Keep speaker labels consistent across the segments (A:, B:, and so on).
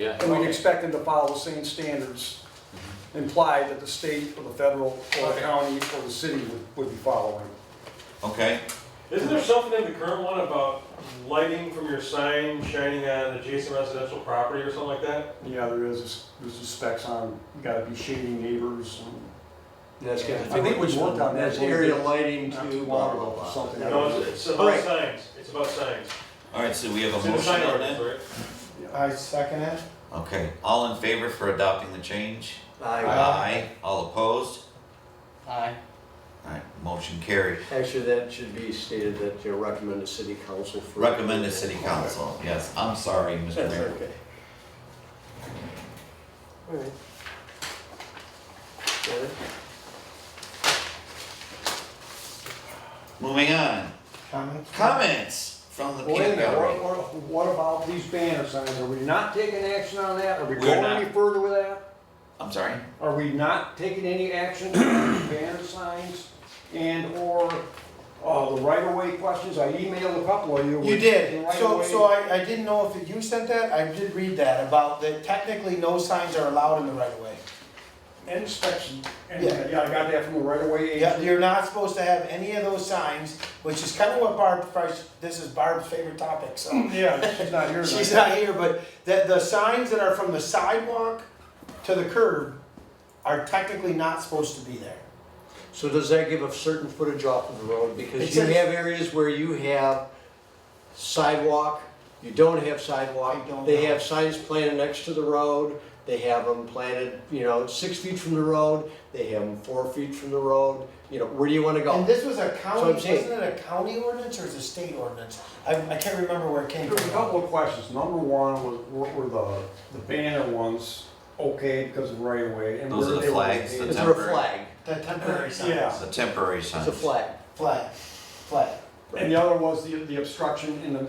A: Yeah.
B: And we'd expect them to follow the same standards implied that the state or the federal or the county or the city would, would be following.
C: Okay,
D: Isn't there something in the current one about lighting from your sign shining on adjacent residential property or something like that?
B: Yeah, there is, there's the specs on, you gotta be shading neighbors
E: That's kind
B: I think we worked on that.
E: That's area lighting
B: and not
E: to
B: too long
E: water
B: ago,
E: law.
B: something.
D: No, it's, it's about
E: All right.
D: signs, it's about signs.
C: all right, so we have
D: It's
C: a
D: in the
C: motion
D: sign
C: on
D: ordinance,
C: that?
D: right?
F: I second it.
C: Okay, all in favor for adopting the change?
E: I,
C: Aye. All opposed?
F: Aye.
C: All right, motion carried.
E: actually, that should be stated that you recommend to city council for.
C: Recommend to city council, yes, I'm sorry, Mr.
E: That's
C: Mayor.
E: okay. All right. Got it?
C: Moving on,
F: Comments?
C: comments from the peanut gallery.
B: what, what about these banner signs? Are we not taking action on that? Are we
C: We're
B: going
C: not.
B: any further with that?
C: I'm sorry,
B: Are we not taking any action on these banner signs and or, uh, the right of way questions? I emailed a couple of you.
F: You
B: The
F: did,
B: right
F: so,
B: of
F: so
B: way-
F: I, I didn't know if you sent that, I did read that, about that technically no signs are allowed in the right of way.
B: And inspection, and, uh,
F: Yeah.
B: yeah, I got that from the right of way
F: Yeah,
B: agent.
F: you're not supposed to have any of those signs, which is kind of what Barb, Fresh- this is Barb's favorite topic, so.
B: Yeah, she's not here
F: She's
B: tonight.
F: not here, but that the signs that are from the sidewalk to the curb are technically not supposed to be there.
E: So does that give a certain footage off of the road?
F: It
E: Because you
F: says-
E: have areas where you have sidewalk, you don't have
F: I
E: sidewalk.
F: don't
E: They
F: know.
E: have signs planted next to the road, they have them planted, you know, six feet from the road, they have them four feet from the road, you know, where do you wanna
F: And
E: go?
F: this was a county,
E: I'm
F: wasn't
E: saying-
F: it a county ordinance or is it a state ordinance? I, I can't remember where it came
B: There's a
F: from.
B: couple of questions. Number one was, were- were the, the banner ones okay because of right of way? and
C: Those
B: were
C: are the
B: they
C: flags,
B: located?
E: Is there a
C: Temporary.
E: flag?
F: The temporary signs.
B: Yeah.
C: it's a temporary sign.
E: It's a flag.
F: Flag, flag,
B: And the other was the, the obstruction in the,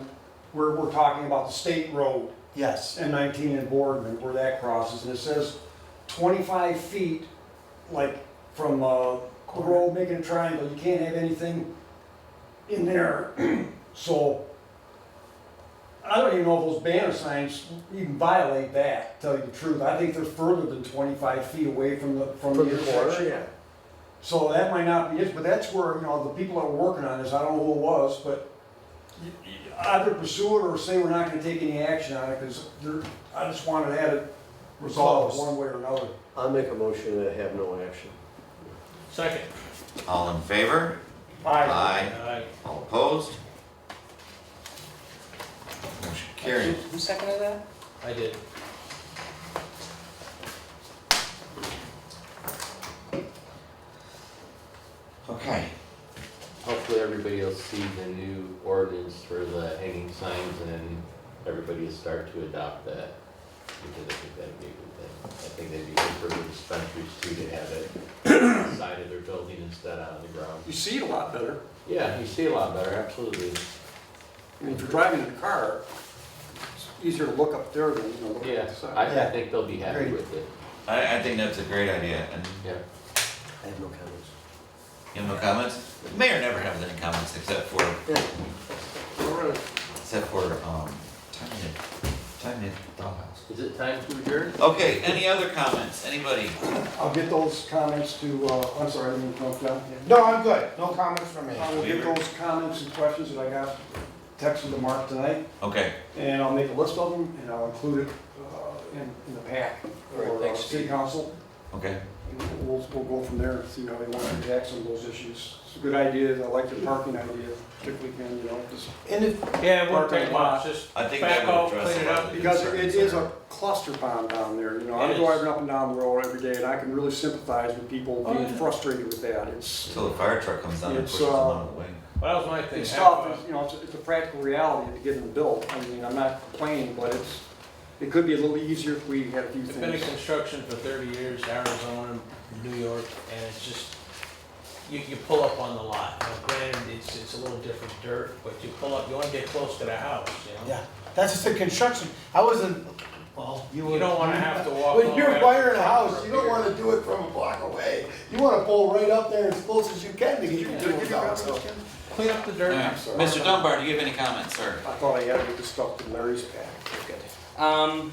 B: we're, we're talking about the state road
F: yes.
B: and nineteen in Boardman where that crosses. And it says twenty-five feet, like from, uh, the road making a triangle, you can't have anything in there. So I don't even know if those banner signs even violate that, to tell you the truth. I think they're further than twenty-five feet away from the, from the
E: From the corner,
B: intersection.
E: yeah.
B: So that might not be it, but that's where, you know, the people that were working on this, I don't know who it was, but you- you either pursue it or say we're not gonna take any action on it, because there, I just wanted to have it resolved
F: Closed.
B: one way or another.
E: I'll make a motion to have no action.
D: Second.
C: All in favor? Aye.
D: Aye.
C: All opposed? Motion carried.
G: Who seconded that?
E: I did.
C: Okay,
H: Hopefully everybody will see the new ordinance for the hanging signs and everybody will start to adopt that. Because I think that'd be a good thing. I think that'd be good for the dispensaries too to have it on the side of their building instead of on the ground.
B: You see it a lot better.
H: Yeah, you see a lot better, absolutely.
B: I mean, if you're driving in a car, it's easier to look up there than, you know, look at
H: Yeah,
B: the side.
H: I, I think they'll be happy
F: Agreed.
H: with it,
C: I, I think that's a great idea, and
H: yeah.
E: I have no comments.
C: you have no comments? The Mayor never has any comments except for, except for, um, time to, time to dollhouse.
H: Is it time to adjourn?
C: Okay, any other comments, anybody?
B: I'll get those comments to, uh, I'm sorry, I didn't jump down.
F: No, I'm good, no comments from me.
D: Um,
B: I will get those comments and questions that I got texted to Mark tonight,
C: Okay,
B: and I'll make a list of them, and I'll include it, uh, in, in the pack
E: All right,
B: for uh,
E: thanks,
B: city
E: Steve.
B: council.
C: okay,
B: We'll, we'll go from there and see how they want to attack some of those issues. It's a good idea, I like the parking idea, particularly when, you know, just.
F: And if,
D: Yeah,
B: wouldn't
D: it wouldn't
B: take
D: take
B: much,
D: much, just
C: I think
D: back
C: that would
D: off,
C: address
D: clean
C: a
D: it
C: lot
D: up.
C: of the
B: Because it
C: concerns
B: is
C: there.
B: a cluster bomb down there, you know,
D: It
B: I'm
D: is.
B: driving up and down the road every day and I can really sympathize with people
D: Oh,
B: being
D: yeah.
B: frustrated with that. It's,
C: Till the fire truck comes down and
B: It's,
C: pushes them out of the way.
D: That was my thing. uh,
B: it's
D: half
B: tough,
D: a-
B: it's, you know, it's, it's a practical reality to get them built. I mean, I'm not complaining, but it's, it could be a little easier if we had a few
D: It's been in
B: things.
D: construction for thirty years, Arizona, New York, and it's just, you, you pull up on the lot. Now granted, it's, it's a little different dirt, but you pull up, you wanna get close to the house, you know?
F: yeah, that's just the construction, I wasn't, well, you were.
D: You don't wanna have to walk. all
F: When
D: the way
F: you're
D: up to
F: wiring a
D: the
F: house,
D: front
F: you don't
D: door.
F: wanna do it from a block away. You wanna pull right up there as close as you can to get your tools out, so.
D: Clean up the dirt.
C: Alright, Mr. Dunbar, do you have any comments, sir?
B: I thought I had to get this stuff to Larry's pack.
G: Um,